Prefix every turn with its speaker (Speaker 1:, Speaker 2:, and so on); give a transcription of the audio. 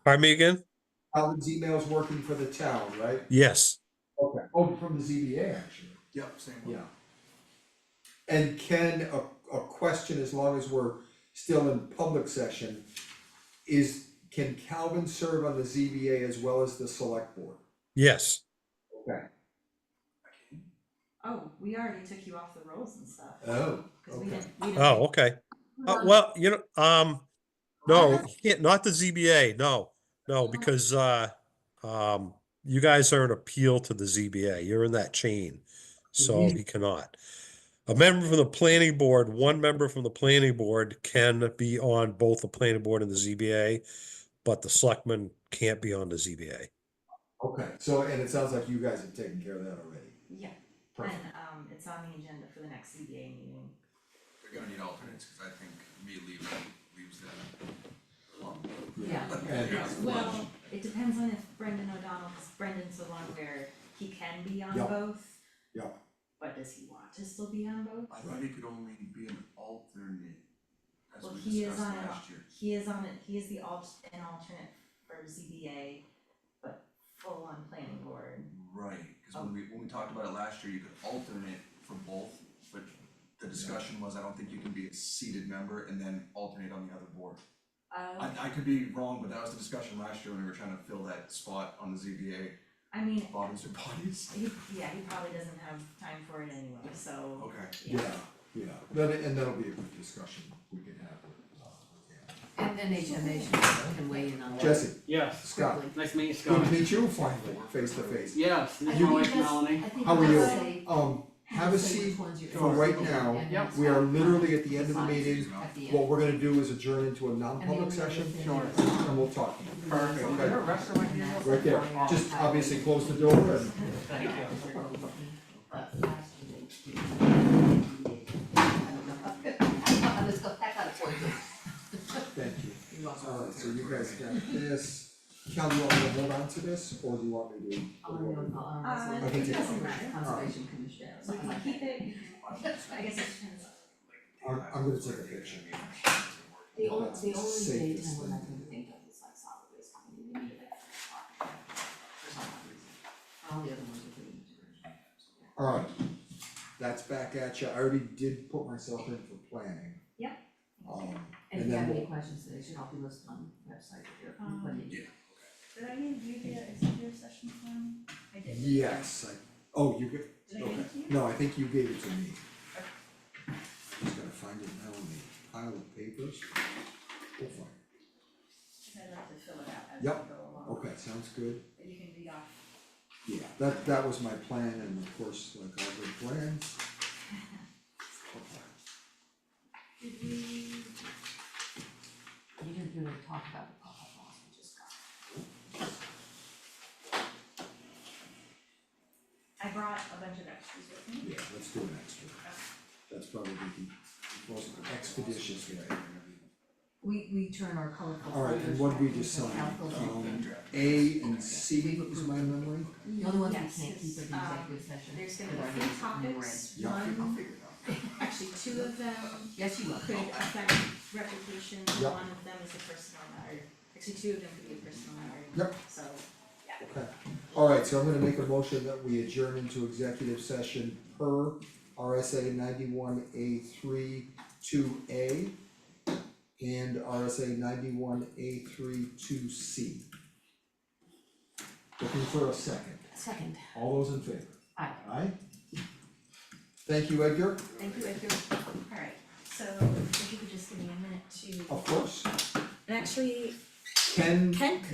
Speaker 1: Pardon me again?
Speaker 2: Alan's email's working for the town, right?
Speaker 1: Yes.
Speaker 2: Okay. Oh, from the ZBA, actually,
Speaker 3: Yep, same one.
Speaker 2: yeah. And can a, a question, as long as we're still in public session, is, can Calvin serve on the ZBA as well as the select board?
Speaker 1: Yes.
Speaker 2: Okay.
Speaker 4: Oh, we already took you off the rolls and stuff.
Speaker 3: Uh,
Speaker 2: Oh,
Speaker 4: 'cause we
Speaker 2: okay.
Speaker 4: didn't- we didn't-
Speaker 1: Oh, okay. Uh, well, you know, um, no, you can't- not the ZBA. No, no, because, uh, um, you guys are an appeal to the ZBA. You're in that chain. So
Speaker 2: Mhm.
Speaker 1: he cannot. A member from the planning board, one member from the planning board can be on both the planning board and the ZBA, but the selectman can't be on the ZBA.
Speaker 2: okay, so, and it sounds like you guys have taken care of that already.
Speaker 4: Yeah,
Speaker 2: Perfect.
Speaker 4: and um it's on the agenda for the next CBA meeting.
Speaker 3: We're gonna need alternates, cause I think me leaving leaves that alone.
Speaker 4: Yeah.
Speaker 2: Yeah.
Speaker 4: Well, it depends on if Brendan O'Donnell, cause Brendan's the one where he can be on
Speaker 2: Yeah.
Speaker 4: both.
Speaker 2: Yeah.
Speaker 4: But does he want to still be on both?
Speaker 3: I thought he could only be an alternate, as
Speaker 4: Well,
Speaker 3: we
Speaker 4: he is
Speaker 3: discussed
Speaker 4: on, an
Speaker 3: last year.
Speaker 4: he is on, it. he is the alt, an alternate for ZBA, but full on planning board.
Speaker 3: Right, cause when we, when we talked about it last year, you could alternate for both, but the discussion was, I don't think you can be a seated member and then alternate on the other board.
Speaker 4: Uh,
Speaker 3: I, I could be wrong, but that was the discussion last year when we were trying to fill that spot on the ZBA,
Speaker 4: I mean,
Speaker 3: bodies or bodies?
Speaker 4: he, yeah, he probably doesn't have time for it anyway, so,
Speaker 3: Okay.
Speaker 2: Yeah, yeah, That- and that'll be a good discussion we can have with, uh, yeah.
Speaker 5: And then HMH can weigh in on that.
Speaker 2: Jesse,
Speaker 6: Yes,
Speaker 2: Scott,
Speaker 6: nice to meet you,
Speaker 2: good
Speaker 6: Scott.
Speaker 2: to meet you finally, face to face.
Speaker 6: Yes,
Speaker 5: I
Speaker 6: this is
Speaker 5: think
Speaker 6: my wife
Speaker 5: that's-
Speaker 6: Melanie.
Speaker 5: I think
Speaker 2: How are
Speaker 5: that's
Speaker 2: you?
Speaker 5: a-
Speaker 2: Um, have a
Speaker 5: that's
Speaker 2: seat
Speaker 5: which ones you're
Speaker 2: for right
Speaker 5: interested in
Speaker 2: now.
Speaker 5: and
Speaker 6: Yep.
Speaker 5: what's
Speaker 2: We are
Speaker 5: not.
Speaker 2: literally at the end of the
Speaker 5: Signs
Speaker 2: meeting.
Speaker 5: At the
Speaker 2: What
Speaker 5: end.
Speaker 2: we're gonna do is adjourn into a
Speaker 5: And the only
Speaker 2: non-public
Speaker 5: other
Speaker 2: session,
Speaker 5: thing
Speaker 6: Sure.
Speaker 5: is-
Speaker 2: and we'll talk.
Speaker 6: Perfect.
Speaker 2: Okay.
Speaker 6: Is there a restaurant
Speaker 5: And
Speaker 6: here?
Speaker 5: that's
Speaker 2: Right there,
Speaker 5: fine.
Speaker 2: just obviously close the door and.
Speaker 6: Thank you.
Speaker 5: But last year they- I don't know. I'm just go- that got a point.
Speaker 2: Thank you.
Speaker 5: You're welcome.
Speaker 2: Alright, so you guys got this. Cal, you want me to hold on to this, or do you want me to?
Speaker 5: I'll remember- I'll remember.
Speaker 2: it
Speaker 4: Uh,
Speaker 5: Conservation
Speaker 2: doesn't
Speaker 4: matter.
Speaker 5: Conservation Commission,
Speaker 4: so we
Speaker 5: something
Speaker 4: can
Speaker 5: like
Speaker 4: keep
Speaker 5: that.
Speaker 4: it, I guess it depends.
Speaker 2: I'm, I'm gonna take a picture.
Speaker 5: The only, the only
Speaker 2: Safest
Speaker 5: daytime
Speaker 2: thing.
Speaker 5: one I can think of is like solid waste coming in, maybe like five o'clock for some odd reason. All the other ones are pretty much.
Speaker 2: Alright, that's back at you. I already did put myself in for planning.
Speaker 4: Yep.
Speaker 2: Um,
Speaker 5: And
Speaker 2: and
Speaker 5: if you
Speaker 2: then
Speaker 5: have
Speaker 2: we'll.
Speaker 5: any questions, they should all be listed on the website if you're,
Speaker 4: Um,
Speaker 5: when you-
Speaker 7: Did I give you the executive session form? I did.
Speaker 2: Yes, I, oh, you get,
Speaker 7: Did I
Speaker 2: okay,
Speaker 7: give it to you?
Speaker 2: no, I think you gave it to me. Just gotta find it now in the pile of papers. Oh, We'll find it.
Speaker 7: 'Cause I'd like to fill it out as we
Speaker 2: Yep.
Speaker 7: go along.
Speaker 2: Okay, sounds good.
Speaker 7: But you can read off.
Speaker 2: Yeah, that, that was my plan and of course, like all good plans. Okay.
Speaker 7: Did we,
Speaker 5: you didn't really talk about the pop-up laws we just got.
Speaker 7: I brought a bunch of extras with me.
Speaker 2: Yeah, let's do an extra. That's probably the most expeditious way.
Speaker 5: We, we turn our colorful.
Speaker 2: Alright, and
Speaker 5: folders
Speaker 2: what we
Speaker 5: back into
Speaker 2: decide,
Speaker 5: alpha-
Speaker 2: um, A and C is my memory.
Speaker 5: The only ones we
Speaker 7: Yes,
Speaker 5: can't keep are the
Speaker 7: um,
Speaker 5: executive session.
Speaker 7: There's
Speaker 5: with
Speaker 7: gonna
Speaker 5: our
Speaker 7: be three
Speaker 5: names and the
Speaker 7: topics,
Speaker 2: Yeah.
Speaker 3: I'll
Speaker 7: one,
Speaker 3: figure it out.
Speaker 7: actually two of them
Speaker 5: red. Yes, you will.
Speaker 7: could affect reputation,
Speaker 2: Yep.
Speaker 7: one of them is a personal matter. Actually, two of them could be a personal matter,
Speaker 2: Yep.
Speaker 7: so.
Speaker 2: Okay, alright, so I'm gonna make a motion that we adjourn into executive session per RSA ninety-one A three two A and RSA ninety-one A three two C. Looking for a second,
Speaker 5: Second,
Speaker 2: all those in favor,
Speaker 5: aye.
Speaker 2: aye? Thank you, Edgar,
Speaker 7: Thank you, Edgar. Alright, so
Speaker 2: Oh.
Speaker 7: if you could just give me a minute to,
Speaker 2: of course,
Speaker 7: and actually,
Speaker 2: Ken
Speaker 7: Ken could